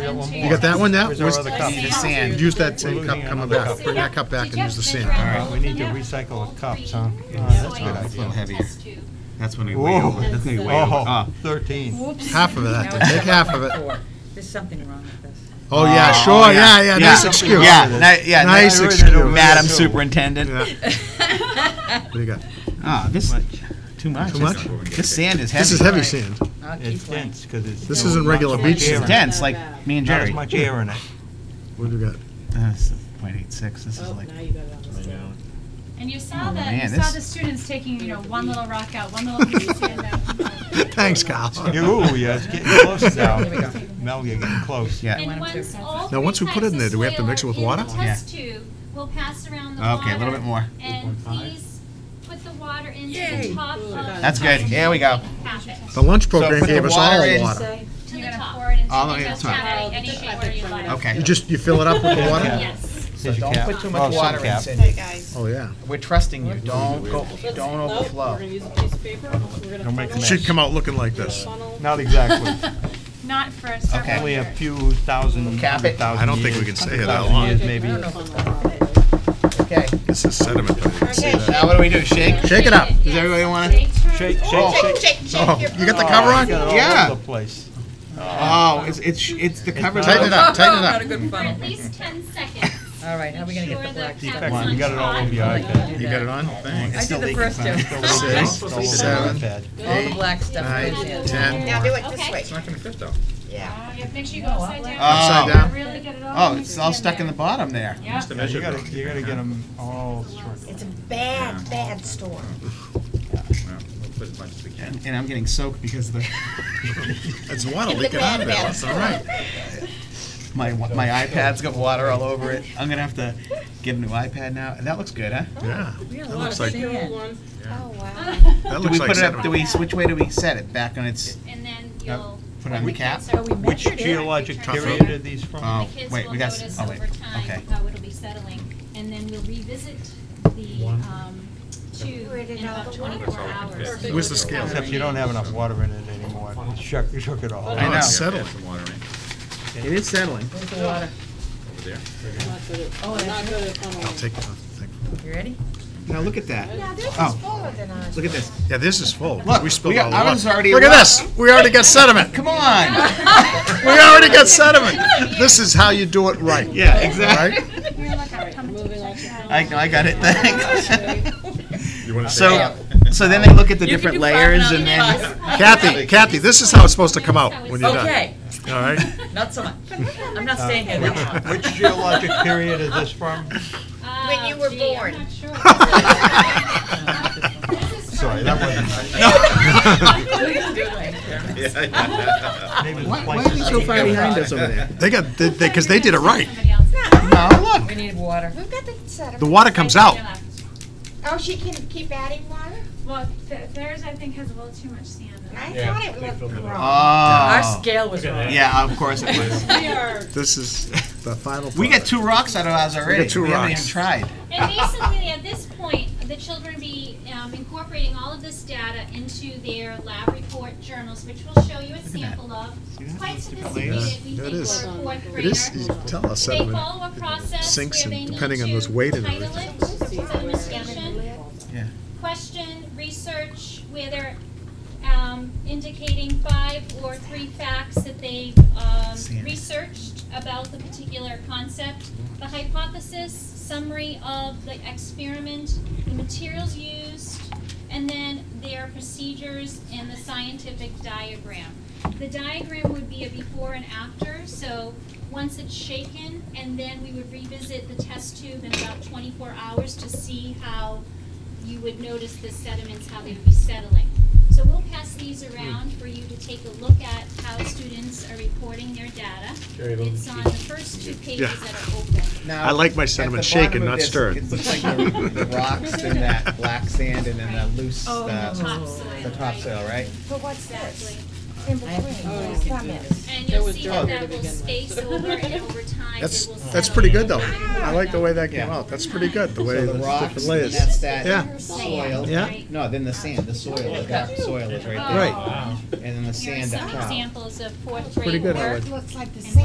You got that one now? Where's our Where's- other cup? The sand. Use that We're same cup losing coming another back. cup. Bring that cup back and use the All sand. right, we need to recycle the cups, huh? that's a good It's a little idea. heavier. That's when we weigh Whoa. over, that's when we weigh over. Oh, Ah, 13. Half of that, then. Take half of it. There's something wrong with this. Oh, yeah, Oh, sure, yeah, yeah, nice excuse. Yeah, ni- yeah. Nice ni- excuse. Madam Superintendent. Yeah. What do you got? Ah, this, too much. Too much? This sand is heavy. This is heavy sand. I'll It's keep one. dense, because it's. This not isn't regular much beach air in It's it. sand. dense, like me and Not Jerry. as much air in it. What do you got? Uh, it's 0.86, this is Oh, like, now you got it on the scale. And you saw Oh, the, you man, saw this- the students taking, you know, one little rock out, one little piece of sand out. Thanks, Kyle. Ooh, yeah, it's getting close now. Here we go. Mel, you're getting close. yeah. And once all Now, three once we put types it in there, of do we have to soil mix it with in the water? test tube, we'll pass around the Okay, a little water, bit more. And please put the water into the Yay. top of. That's good. Here we go. The lunch program put the gave us water all in. water. To the top. Pour it into All the the way to the just top. uh, have any shape where you like. Okay. You just, you fill it up with the water? Yes. So don't put too much water in, Oh, yeah. We're trusting you, don't go, Let's don't nope, We're overflow. gonna use a piece of paper, we're Don't make gonna a It funnel, should come out looking like this. funnel. Not exactly. Not for Okay. several Only a years. few thousand, Cap hundred it. thousand I don't think years, we can say hundred that thousand long. years, Maybe. I don't know if I'm allowed. Okay, It's this sediment that I didn't see. now what do we do, shake? Shake it up. Does everybody wanna? Shake, turn. Shake, shake, shake. Oh, you got the cover Oh, on? you got it all Yeah. over the place. Oh, it's, it's, it's the cover. not- Tighten it up, tighten it Not a up. good For funnel. at least ten seconds. All right, how are we gonna get the Make sure black the stuff? cap- Come on, You got it all over your iPad. You got it on? Thanks. I still did the leaking first fine. two. Six, All over your seven, iPad. All the black stuff nine, goes in. ten. Now do it this Okay. way. Uh, you have to make sure you go upside down. Upside down. Really get it all. Uh, Oh, it's all stuck in the bottom there. Yeah. Yeah, You gotta, you gotta get them all sorted. It's a bad, bad storm. And and I'm getting soaked because the, It's water leaking out of there, that's all right. my, wa- my iPad's got water all over it. I'm gonna have to get a new iPad now. That looks good, huh? Yeah, We had a That lot of looks like- sand. Oh, wow. that Do looks we like put it up, sediment. do we, which way do we set it? Back on its, And then you'll. put it on the cap? So we Which geologic period are these Um, from? Oh, The kids wait, will we got, s- notice oh, wait, over time okay. how it'll be settling. And then we'll revisit the, um, tube in about twenty-four hours. Where's the scale? Except you don't have enough water in it anymore. It Shook, it shook it all. I know, know. Oh, it's settling. It is settling. Where's the water? Over there. Not good at funneling. I'll take the thing. You ready? Now, look at that. Now, this is Oh. fuller than ours. Look at this. Yeah, this is full. Look, We spilled we got- all the water. ours is already Look at wet. this, we already got sediment. Come on! We already got sediment. This is how you do it right. Yeah, Right? I, I got it, Oh, thanks. So, Yeah. so then they look at the You can different do five layers now. and then, Kathy, Kathy, this is how it's supposed to come out when you're done. Okay, All right? not so much. I'm not staying here that long. Which geologic period is this from? When Oh, you were born. Sorry, that wasn't nice. Maybe the why place are they is- so far behind us over there? They got, they, because they did it right. Oh, look, We need water. We've got the sediment. The water comes out. Oh, she can keep adding water? Well, th- theirs, I think, has a little too much sand in it. I thought it looked wrong. Our oh, scale was wrong. yeah, of course it was. This is the final. We got product. two rocks out of ours already. two We haven't rocks. even tried. And basically, at this point, the children be um, incorporating all of this data into their lab report journals, which we'll show you a sample of. It's Quite sophisticated, we think, It for a is. fourth grader. It is, you can tell us They sediment. follow a process sinks where in they need depending on to this weight and title everything. it, sedimentation, Yeah. Question, research, where they're um, indicating five or three facts that they've um, Sand. researched about the particular concept, the hypothesis, summary of the experiment, the materials used, and then their procedures and the scientific diagram. The diagram would be a before and after, so once it's shaken, and then we would revisit the test tube in about twenty-four hours to see how you would notice the sediments, how they would be settling. So we'll pass these around for you to take a look at how students are reporting their data. It's on the first two pages Yeah. that are open. Oh, I like my sediment shaken, not stirred. It looks like the the rocks and that black sand and then the loose, uh, Oh. the Topsoil, right? topsoil, right? But what's Exactly. this? In Oh, between, the summit. And you'll see that that will space over and over time, it will That's, settle. that's pretty good though. I like the way that came out. That's pretty good, the way So the the rocks, different and then layers. that's Yeah. that soil. Yeah. Right. No, then the sand, the soil, the dark soil is right there. Right. And then the Here are sand up some top. examples of fourth Pretty grade good, I work. like. Looks like the And same.